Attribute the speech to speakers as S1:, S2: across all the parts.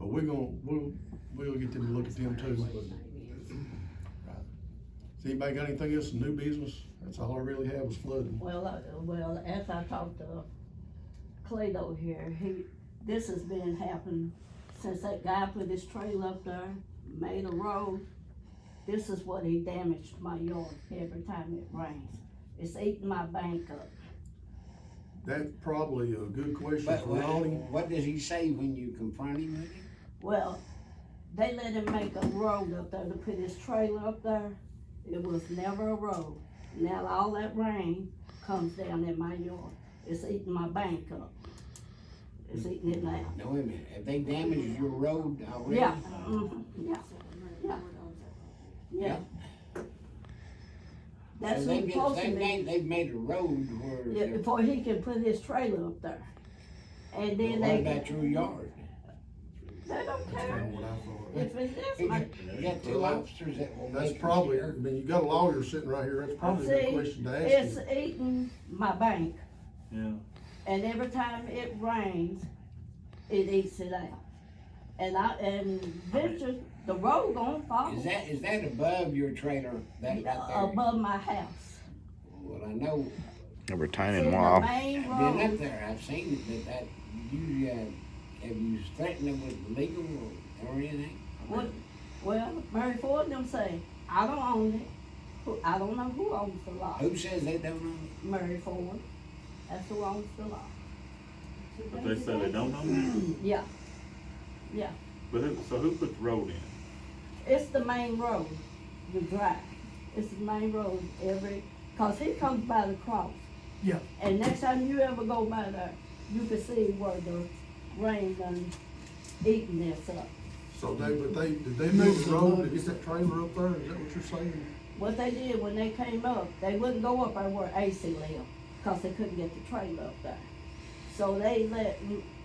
S1: we're gonna, we'll, we'll get them to look at them too. Has anybody got anything else, new business? That's all I really had was flooding.
S2: Well, uh, well, as I talked to Clay over here, he, this has been happening since that guy put his trail up there, made a road. This is what he damaged my yard every time it rains. It's eating my bank up.
S1: That's probably a good question
S3: But
S1: for
S3: what,
S1: Ronnie.
S3: what does he say when you confront him with it?
S2: Well, they let him make a road up there to put his trailer up there. It was never a road. Now all that rain comes down in my yard. It's eating my bank up. It's eating it now.
S3: No, wait a minute, have they damaged your road already?
S2: Yeah, mhm, yeah, yeah. Yeah. That's
S3: So they've,
S2: what's supposed to
S3: they've,
S2: be,
S3: made- they've made a road where,
S2: yeah,
S3: they're-
S2: before he can put his trailer up there. And then
S3: what
S2: they,
S3: about your yard?
S2: they don't care
S1: That's what I thought.
S2: if it's this
S3: You
S2: much.
S3: got two officers that will make.
S1: That's
S3: you
S1: probably, I
S3: scared.
S1: mean, you got a lawyer sitting right here, that's probably a
S2: See,
S1: good question to ask
S2: It's
S1: him.
S2: eating my bank.
S4: Yeah.
S2: And every time it rains, it eats it out. And I, and venture, the road gonna fall.
S3: Is that, is that above your trailer, that right there?
S2: Oh. Above my house.
S3: Well, I know,
S5: Over time
S2: See,
S5: and
S2: the
S5: wow.
S2: main
S3: I've been
S2: road,
S3: up there, I've seen it, but that, you, uh, have you threatened them with legal or, or anything?
S2: What? well, Mary Ford them say, I don't own it. Who- I don't know who owns the lot.
S3: Who says they don't know?
S2: Mary Ford, that's who owns the lot.
S4: But they say they don't know.
S2: Yeah,
S4: But who, so who put the road in?
S2: it's the main road, the drive. It's the main road every, cause he comes by the cross.
S1: Yeah.
S2: And next time you ever go by there, you can see where the rain done eating this up.
S1: So they, but they, did they move the road to get that trailer up there, is that what you're saying?
S2: What they did when they came up, they wouldn't go up there where AC lived, cause they couldn't get the trailer up there. So they let,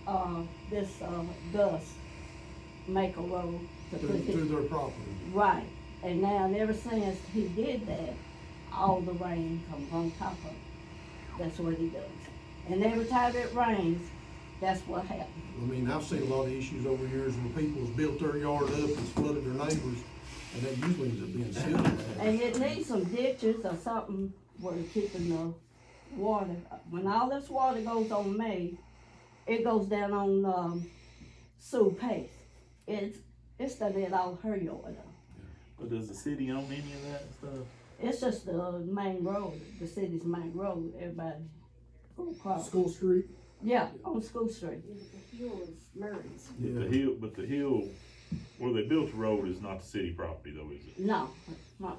S2: uh, this, uh, Gus make a road to put
S1: Through,
S2: his
S1: through their property?
S2: Right, and now ever since he did that, all the rain comes on top of it. That's what he does. And every time it rains, that's what happens.
S1: I mean, I've seen a lot of issues over the years where people's built their yard up and flooded their neighbors, and that usually ends up being silly.
S2: And it needs some ditches or something where it's keeping the water. When all this water goes on me, it goes down on, um, Sue Pace. It's, it's done it all her yard up.
S4: But does the city own any of that stuff?
S2: It's just the main road, the city's main road, everybody. go across.
S1: School Street?
S2: Yeah, on School Street.
S1: Yeah.
S4: The hill, but the hill where they built the road is not the city property though, is it?
S2: No, uh-uh.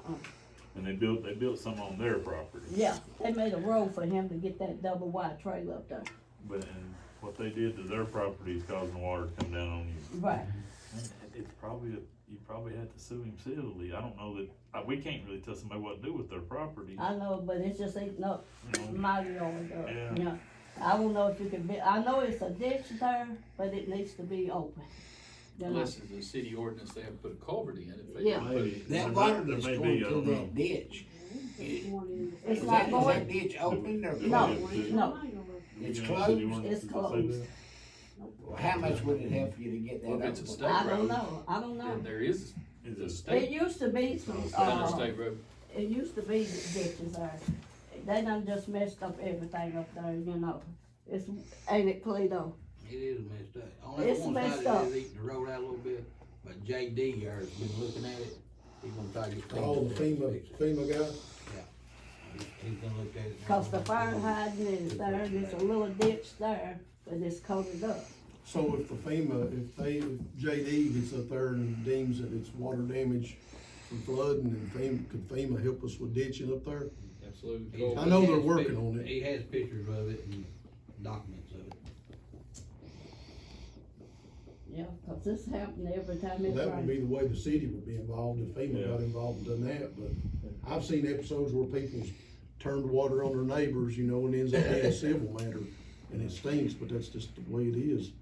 S4: And they built, they built some on their property.
S2: yeah, they made a road for him to get that double wide trailer up there.
S4: But, and what they did to their property is causing the water to come down on you.
S2: Right.
S4: It's probably, you probably have to sue him civilly. I don't know that, I, we can't really tell somebody what to do with their property.
S2: I know, but it's just eating up
S4: you
S1: Mm-hmm.
S4: know?
S2: my yard up,
S4: Yeah.
S2: you know. I don't know if you can be, I know it's a ditch there, but it needs to be open. You know,
S6: Unless it's a city ordinance, they have to put a culvert in it. if they
S2: Yeah.
S6: put it-
S4: Maybe. There
S3: That
S4: may-
S3: water
S4: there
S3: that's
S4: may
S3: going
S4: be, I
S3: through
S4: don't know.
S3: that ditch, is
S2: It's
S3: is
S2: not
S3: that, is
S2: going,
S3: that ditch open or?
S2: No.
S4: Is it-
S2: no,
S3: It's
S4: Yeah,
S3: closed.
S4: city ordinance,
S2: It's
S4: does it say
S2: closed.
S4: that?
S3: Well, How much would it help you to get
S6: Well,
S3: that
S6: if it's a
S3: open?
S6: state
S2: I don't
S6: road,
S2: know, I don't
S6: Then
S2: know.
S6: there is
S4: Is
S6: a
S4: it
S2: It
S6: state,
S2: used to be some,
S6: then a
S2: uh,
S6: state road.
S2: it used to be ditches there. They done just messed up everything up there, you know. It's, ain't it Toledo?
S7: It is messed up. Only
S2: It's
S7: one
S2: messed
S7: side
S2: up.
S7: of it is eating the road out a little bit, but JD here has been looking at it. He's gonna try to get.
S1: All Oh, the FEMA, FEMA guys?
S7: He's he's gonna look at it. and
S2: Cause the fire
S7: he's gonna-
S2: hydrant is there, and there's a little ditch there, but it's covered up.
S1: So if the FEMA, if they, if JD gets up there and deems that it's water damage from flooding and FEMA, could FEMA help us with ditching up there?
S6: Absolutely.
S7: He's-
S1: I know
S7: he
S1: they're
S7: has
S1: working
S7: pic-
S1: on it.
S7: He has pictures of it and documents of it.
S2: Yeah, cause this happened every time it
S1: That would
S2: rains.
S1: be the way the city would be involved if FEMA got involved and done that, but I've seen episodes where people's turned water on their neighbors, you know, and ends up being a civil matter, and it stinks, but that's just the way it is.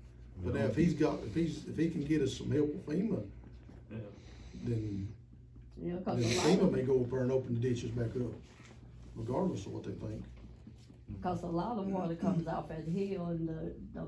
S1: But now if he's got, if he's, if he can get us some help with FEMA,
S4: Yeah.
S1: then
S2: Yeah,
S1: Then
S2: cause
S1: the
S2: a lot
S1: FEMA
S2: of,
S1: may go up there and open the ditches back up, regardless of what they think.
S2: cause a lot of water comes off that hill and the, the